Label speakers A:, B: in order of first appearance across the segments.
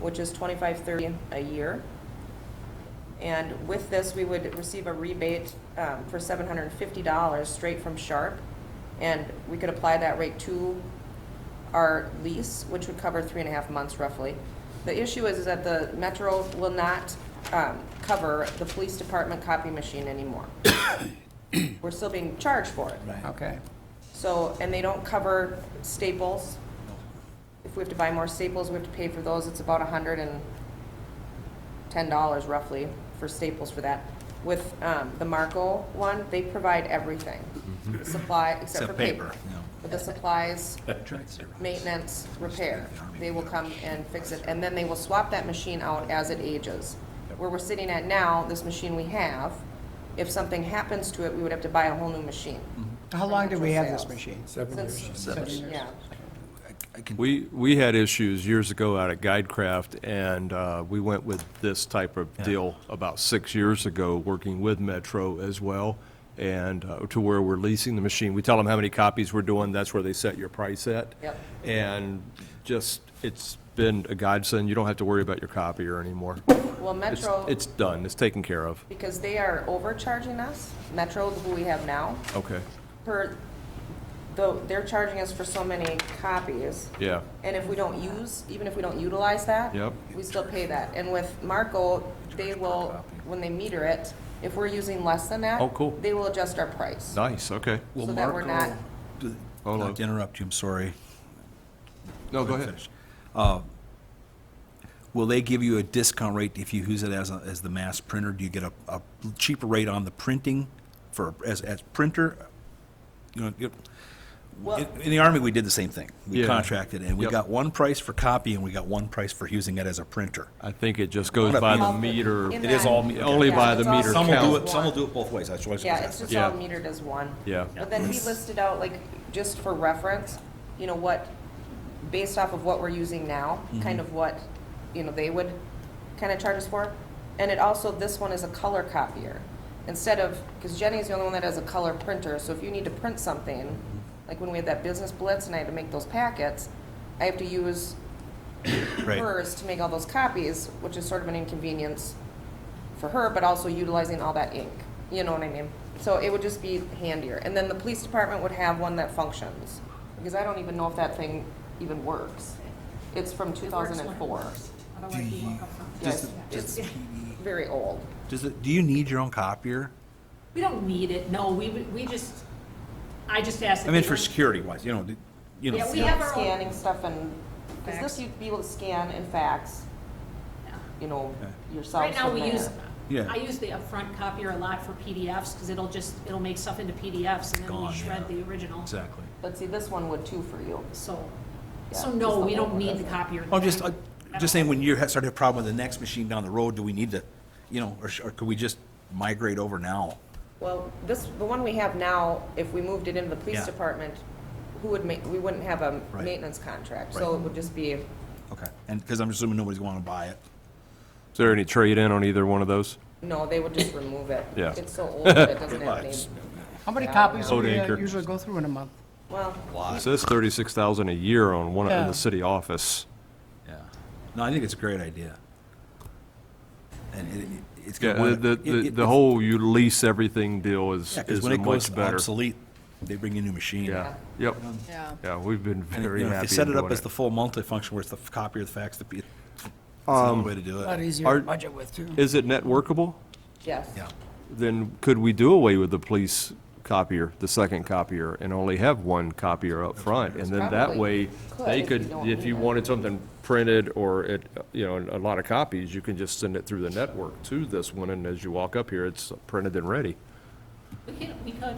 A: which is twenty-five thirty a year. And with this, we would receive a rebate um, for seven hundred and fifty dollars straight from Sharp. And we could apply that rate to our lease, which would cover three and a half months roughly. The issue is, is that the Metro will not um, cover the police department copy machine anymore. We're still being charged for it.
B: Right.
C: Okay.
A: So, and they don't cover staples. If we have to buy more staples, we have to pay for those. It's about a hundred and ten dollars roughly for staples for that. With, um, the Marco one, they provide everything. Supply, except for paper. But the supplies, maintenance, repair, they will come and fix it, and then they will swap that machine out as it ages. Where we're sitting at now, this machine we have, if something happens to it, we would have to buy a whole new machine.
C: How long did we have this machine?
B: Seven
A: Since-
B: years.
A: since- Yeah,
B: I can,
D: We, we had issues years ago out at GuideCraft, and uh, we went with this type of deal about six years ago, working with Metro as well, and uh, to where we're leasing the machine. We tell them how many copies we're doing, that's where they set your price at.
A: Yep.
D: And just, it's been a godsend, you don't have to worry about your copier anymore.
A: well,
D: It's,
A: Metro,
D: it's done, it's taken care of.
A: because they are overcharging us, Metro, who we have now,
D: Okay,
A: per, though, they're charging us for so many copies.
D: yeah.
A: And if we don't use, even if we don't utilize that.
D: Yep.
A: We still pay that. And with Marco, they will, when they meter it, if we're using less than that.
D: Oh, cool.
A: They will adjust our price.
D: Nice, okay.
B: will
A: So that we're
B: Marco,
A: not-
B: do-
D: Hold
B: oh, not
D: on.
B: to interrupt you, I'm sorry.
D: Oh, No,
B: Let
D: go
B: me
D: ahead.
B: finish. Uh, Will they give you a discount rate if you use it as, a- as the mass printer? Do you get a, a cheaper rate on the printing for, as, as printer? You know, you-
A: Well-
B: in- in the Army, we did the same thing. We
D: Yeah.
B: contracted, and we
D: Yep.
B: got one price for copy, and we got one price for using it as a printer.
D: I think it just goes
B: Wanna
D: by
B: be-
D: the meter.
A: In
B: It is
A: that-
B: all me-
D: Only
A: Yeah,
D: by
A: it's
D: the
A: all
D: meter
B: Some
A: metered
B: will do
A: as
B: it, some will
A: one.
B: do it both ways, I just always.
A: Yeah, it's just
D: Yeah.
A: all metered as one.
D: Yeah.
A: But then he listed out, like, just for reference, you know, what, based off of what we're using now,
D: Mm-hmm.
A: kind of what, you know, they would kind of charge us for. And it also, this one is a color copier. Instead of, because Jenny's the only one that has a color printer, so if you need to print something,
D: Mm-hmm.
A: like when we had that business blitz and I had to make those packets, I have to use
B: Right.
A: hers to make all those copies, which is sort of an inconvenience for her, but also utilizing all that ink. You know what I mean? So it would just be handier. And then the police department would have one that functions, because I don't even know if that thing even works. It's from two thousand and four.
E: Otherwise, we won't have fun.
A: Yes, it's very old.
B: Does it, do you need your own copier?
E: We don't need it, no, we, would- we just, I just asked.
B: I mean, for security wise, you know, d- you know.
E: Yeah, we
A: You know,
E: have our own-
A: Scanning stuff and, because
E: Fax.
A: this you'd be able to scan and fax, you know, yourself
E: Right now,
A: from
E: we
A: there.
E: use,
B: Yeah.
E: I use the upfront copier a lot for PDFs, because it'll just, it'll make stuff into PDFs, and then we
B: Gone,
E: shred
B: yeah.
E: the original.
B: Exactly.
A: But see, this one would too for you.
E: So,
A: Yeah,
E: so
A: just
E: no,
A: the
E: we
A: whole
E: don't need the
A: doesn't-
E: copier.
B: I'm just, i just saying, when you ha- start to have a problem with the next machine down the road, do we need to, you know, or, sh- or could we just migrate over now?
A: Well, this, the one we have now, if we moved it into the police
B: Yeah.
A: department, who would ma, we wouldn't have a
B: Right.
A: maintenance contract, so it
B: Right.
A: would just be,
B: Okay, and, because I'm assuming nobody's going to buy it.
D: Is there any trade-in on either one of those?
A: no, they would just remove it.
D: Yeah.
A: It's so old that it doesn't have any,
C: How many
A: Yeah,
C: copies
A: no.
C: do we
D: Load
C: uh,
D: anchor.
C: usually go through in a month?
A: well,
D: It says thirty-six thousand a year on one, in
C: Yeah.
D: the city office.
B: Yeah. No, I think it's a great idea. And it, it- it's.
D: Yeah,
B: gonna wanna-
D: the,
B: it-
D: the,
B: it-
D: the whole you lease everything deal is,
B: Yeah, 'cause
D: is
B: when
D: a
B: it goes
D: much better.
B: obsolete, they bring you a new machine.
D: Yeah, yep.
F: Yeah.
D: Yeah, we've been
B: And, you
D: very
B: know, if
D: happy
B: they
D: in
B: set it up
D: doing
B: as
D: it.
B: the full multi-function where it's the f- copier, the fax, the, p- it's another way to do
C: A lot
B: it.
C: easier
D: Are-
C: to budget with, too.
D: Is it net workable?
A: yes.
B: Yeah.
D: Then could we do away with the police copier, the second copier, and only have one copier up front? And then that
A: Probably
D: way,
A: could
D: they
A: if you
D: could,
A: don't
D: if you
A: need it.
D: wanted something printed or it, you know, a lot of copies, you can just send it through the network to this one, and as you walk up here, it's printed and ready.
E: We could, we could,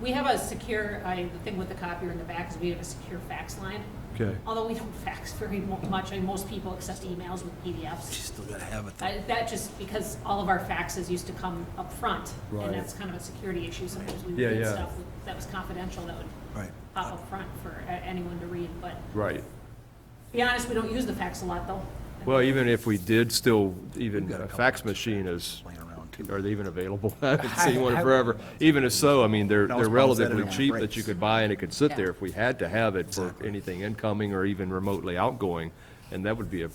E: we have a secure, I, the thing with the copier in the back is we have a secure fax line.
D: Okay.
E: Although we don't fax very mo- much, I mean, most people accept emails with PDFs.
B: You still gotta have it.
E: I- That just, because all of our faxes used to come up front,
D: Right.
E: and that's kind of a security issue, sometimes we would
D: Yeah,
E: get
D: yeah.
E: stuff with- that was confidential that would
B: Right.
E: pop up front for a- anyone to read, but to
D: Right.
E: be honest, we don't use the fax a lot, though.
D: Well, even if we did still, even
B: got a
D: a
B: couple
D: fax machine is,
B: Laying around too.
D: are they even available? I haven't seen one
C: I- I-
D: forever. Even if so, I mean, they're,
B: That
D: they're
B: was probably set
D: relatively
B: in on
D: cheap that
B: breaks.
D: you could buy and it could sit there
F: Yeah.
D: if we had to have it for anything incoming or even remotely outgoing. And that would be a